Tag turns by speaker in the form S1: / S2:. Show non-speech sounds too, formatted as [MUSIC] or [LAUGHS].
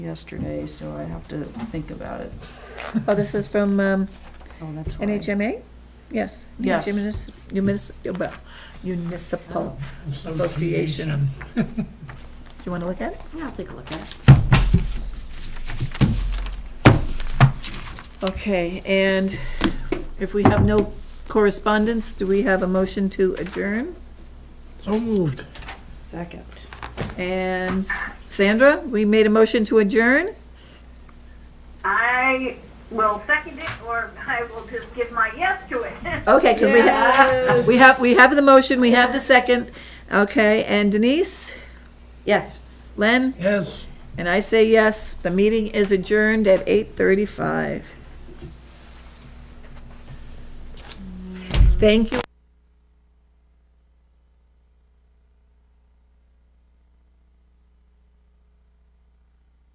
S1: yesterday, so I have to think about it.
S2: Oh, this is from um,
S1: Oh, that's right.
S2: NHMA? Yes.
S1: Yes.
S2: NHMA Municipal, well, municipal. Association. Do you want to look at it?
S3: Yeah, I'll take a look at it.
S2: Okay, and if we have no correspondence, do we have a motion to adjourn?
S4: So moved.
S1: Second.
S2: And Sandra, we made a motion to adjourn?
S5: I will second it, or I will just give my yes to it. [LAUGHS]
S2: Okay, because we have, we have, we have the motion, we have the second. Okay, and Denise,
S3: Yes.
S2: Len,
S4: Yes.
S2: and I say yes. The meeting is adjourned at 8:35. Thank you.